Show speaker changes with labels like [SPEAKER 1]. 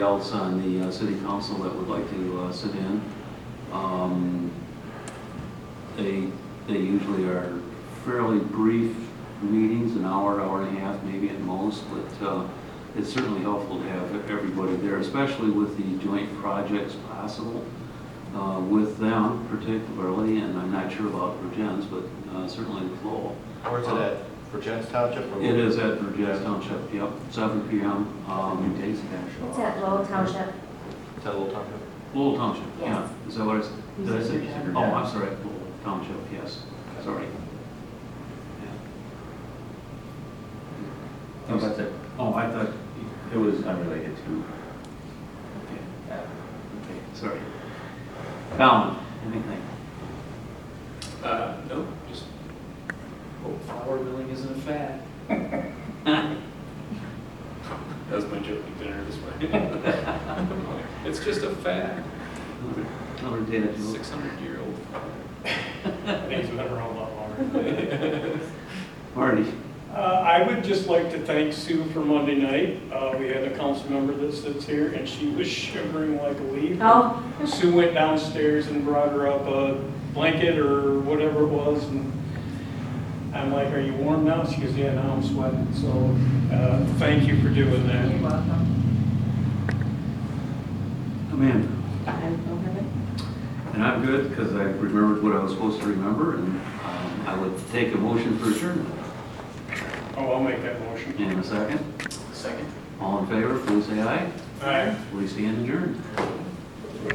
[SPEAKER 1] else on the uh, city council that would like to uh, sit in. Um, They, they usually are fairly brief meetings, an hour, hour and a half, maybe at most, but uh, it's certainly helpful to have everybody there, especially with the joint projects possible uh, with them particularly, and I'm not sure about Virgin's, but uh, certainly Lowell.
[SPEAKER 2] Where's it at? For Jens Township? or-
[SPEAKER 1] It is at Virgin's Township, yep, 7 PM. um,
[SPEAKER 3] It's at Lowell Township.
[SPEAKER 2] Is that Little Township?
[SPEAKER 1] Lowell Township, yeah.
[SPEAKER 3] Yes.
[SPEAKER 1] Is that what it's,
[SPEAKER 3] You
[SPEAKER 1] did I
[SPEAKER 3] said
[SPEAKER 1] say?
[SPEAKER 3] Virginia.
[SPEAKER 1] Oh, I'm sorry, Lowell Township, yes, sorry.
[SPEAKER 4] How about that?
[SPEAKER 1] Oh, I thought,
[SPEAKER 4] It was unrelated to,
[SPEAKER 1] okay,
[SPEAKER 4] uh,
[SPEAKER 1] okay, sorry. Fallon, anything?
[SPEAKER 5] Uh, nope, just hope flour milling isn't a fad. That was my joke at dinner this morning. It's just a fad,
[SPEAKER 1] Another- Another data joke.
[SPEAKER 5] six hundred year old fad.
[SPEAKER 6] Things have been around a lot longer.
[SPEAKER 1] Marty?
[SPEAKER 6] Uh, I would just like to thank Sue for Monday night. Uh, We had a council member that sits here, and she was shivering like a leaf.
[SPEAKER 3] Oh,
[SPEAKER 6] Sue went downstairs and brought her up a blanket or whatever it was, and I'm like, "Are you warm now?" She goes, "Yeah, now I'm sweating." So uh, thank you for doing
[SPEAKER 3] you're
[SPEAKER 6] that.
[SPEAKER 3] welcome.
[SPEAKER 1] Amanda? And I'm good because I remembered what I was supposed to remember and um, I would take a motion for adjournment
[SPEAKER 6] Oh, I'll make that motion.
[SPEAKER 1] in a second.
[SPEAKER 5] Second.
[SPEAKER 1] All in favor, please say aye.
[SPEAKER 6] All right.
[SPEAKER 1] We stand adjourned.